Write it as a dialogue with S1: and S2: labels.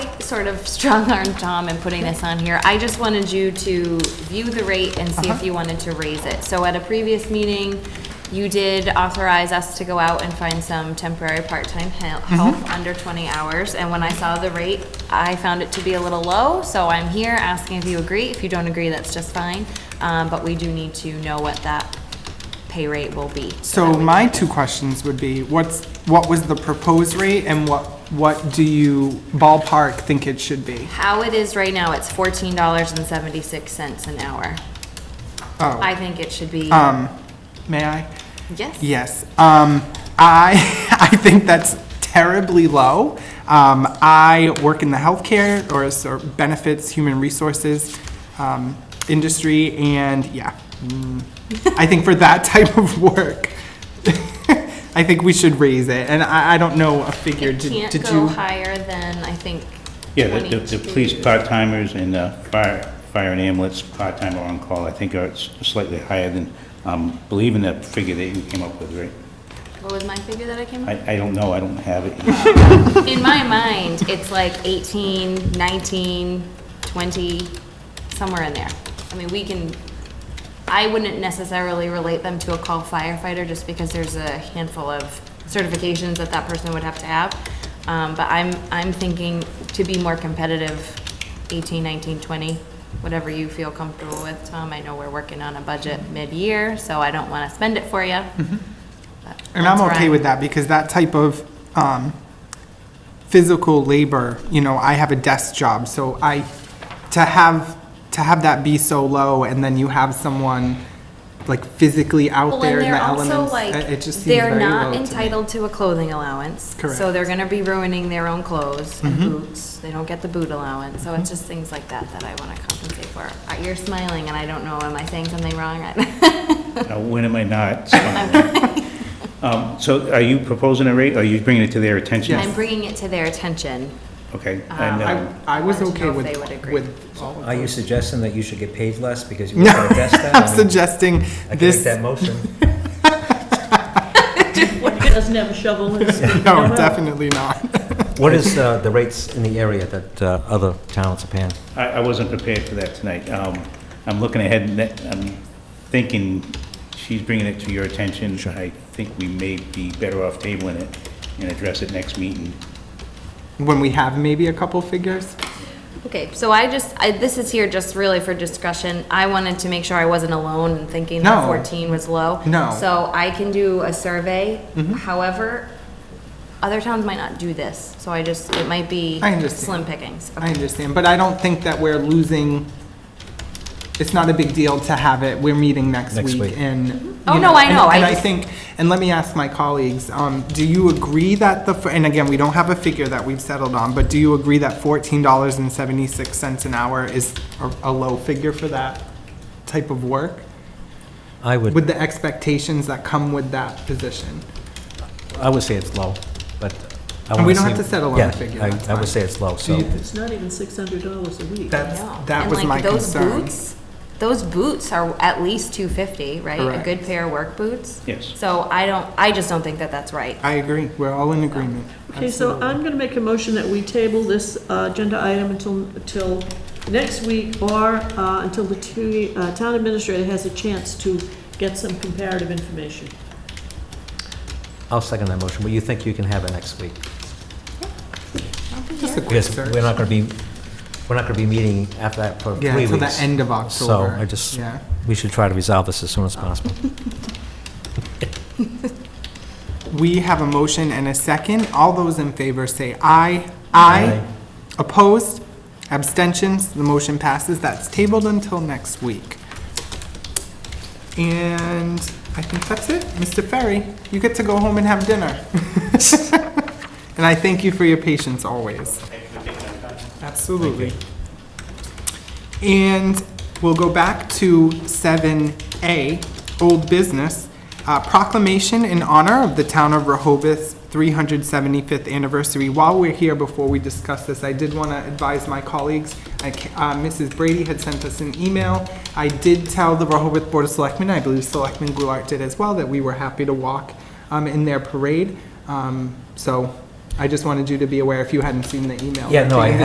S1: sort of strong-armed Tom in putting this on here. I just wanted you to view the rate and see if you wanted to raise it. So at a previous meeting, you did authorize us to go out and find some temporary part-time hel- help under 20 hours. And when I saw the rate, I found it to be a little low, so I'm here asking if you agree. If you don't agree, that's just fine. Um, But we do need to know what that pay rate will be.
S2: So my two questions would be, what's, what was the proposed rate and what, what do you ballpark think it should be?
S1: How it is right now, it's fourteen dollars and seventy-six cents an hour. I
S2: Oh,
S1: think it should be,
S2: um, may I?
S1: yes.
S2: Yes, um, I, I think that's terribly low. Um, I work in the healthcare or s- or benefits, human resources, um, industry, and yeah. mm, I think for that type of work, I think we should raise it, and I, I don't know a figure.
S1: It
S2: Did
S1: can't
S2: did
S1: go
S2: you?
S1: higher than, I think,
S3: Yeah, the, the- the police
S1: 22.
S3: part-timers and the fire, fire and ambulance part-time are on call, I think are s- slightly higher than, um, believe in that figure that you came up with, right?
S1: What was my figure that I came up with?
S3: I, I don't know, I don't have it.
S1: In my mind, it's like 18, 19, 20, somewhere in there. I mean, we can, I wouldn't necessarily relate them to a call firefighter just because there's a handful of certifications that that person would have to have. Um, But I'm, I'm thinking to be more competitive, 18, 19, 20, whatever you feel comfortable with, Tom. I know we're working on a budget mid-year, so I don't want to spend it for you.
S2: Mm-hmm. And I'm okay with that, because that type of, um, physical labor, you know, I have a desk job, so I, to have, to have that be so low, and then you have someone, like, physically out
S1: Well, and
S2: there in
S1: they're
S2: the
S1: also
S2: elements,
S1: like,
S2: it it just seems
S1: they're
S2: very low
S1: not
S2: to me.
S1: entitled to a clothing allowance. So
S2: Correct. Mm-hmm.
S1: they're gonna be ruining their own clothes and boots. They don't get the boot allowance. So it's just things like that that I wanna compensate for. Uh, You're smiling and I don't know, am I saying something wrong?
S3: Uh, When am I not? Um, so are you proposing a rate, or are you bringing it to their attention?
S1: I'm bringing it to their attention.
S3: Okay, and, um,
S2: I, I was
S1: I wanted to
S2: okay
S1: know if
S2: with,
S1: they would agree.
S2: with all of
S4: Are you suggesting that you should get paid less because you
S2: No,
S4: work at a desk then?
S2: I'm suggesting
S4: I can make
S2: this,
S4: that motion.
S5: Doesn't have a shovel in his hand.
S2: no, definitely not.
S4: What is uh, the rates in the area that uh, other towns are paying?
S3: I, I wasn't prepared for that tonight. Um, I'm looking ahead, and that- I'm thinking she's bringing it to your attention. I think we may be better off tabling it and address it next meeting.
S2: When we have maybe a couple figures,
S1: Okay, so I just, I, this is here just really for discussion. I wanted to make sure I wasn't alone in thinking that
S2: No.
S1: fourteen was low.
S2: No. Mm-hmm.
S1: So I can do a survey. However, other towns might not do this, so I just, it might be
S2: I understand.
S1: slim pickings.
S2: I understand, but I don't think that we're losing, it's not a big deal to have it, we're meeting next
S4: Next
S2: week
S4: week.
S2: and. you
S1: Oh, no, I
S2: and-
S1: know, I
S2: And I
S1: just-
S2: think, and let me ask my colleagues, um, do you agree that the, and again, we don't have a figure that we've settled on, but do you agree that fourteen dollars and seventy-six cents an hour is a, a low figure for that type of work?
S4: I would,
S2: With the expectations that come with that position?
S4: I would say it's low, but I
S2: And
S4: want
S2: we don't have to settle on a
S4: Yeah,
S2: figure,
S4: I-
S2: that's
S4: I
S2: fine.
S4: would say it's low, so.
S2: you-
S5: It's not even six hundred dollars a week.
S2: That's,
S1: No.
S2: that
S1: And,
S2: was
S1: like,
S2: my
S1: those
S2: concern.
S1: boots- Those boots are at least two fifty, right? A good
S2: Correct.
S1: pair of work boots?
S3: Yes.
S1: So I don't, I just don't think that that's right.
S2: I agree, we're all in agreement.
S5: Okay, so I'm going to make a motion that we table this uh, agenda item until, until next week or uh, until the two- uh, town administrator has a chance to get some comparative information.
S4: I'll second that motion, but you think you can have it next week?
S2: Just a quick
S4: Because
S2: search.
S4: we're not going to be, we're not going to be meeting after that for
S2: Yeah,
S4: three
S2: till the
S4: weeks.
S2: end of
S4: So
S2: October.
S4: I just,
S2: Yeah.
S4: we should try to resolve this as soon as possible.
S2: We have a motion and a second. All those in favor say aye. Aye.
S4: Aye.
S2: Opposed? Abstentions? The motion passes. That's tabled until next week. And I think that's it. Mr. Ferry, you get to go home and have dinner. And I thank you for your patience always. Absolutely. And we'll go back to 7A, Old Business, uh, proclamation in honor of the Town of Rehoboth's 375th anniversary. While we're here, before we discuss this, I did want to advise my colleagues, I ca- uh, Mrs. Brady had sent us an email. I did tell the Rehoboth Board of Selectmen, I believe Selectman Goulart did as well, that we were happy to walk um, in their parade. Um, So I just wanted you to be aware if you hadn't seen the email.
S4: Yeah, no, I
S2: Taking the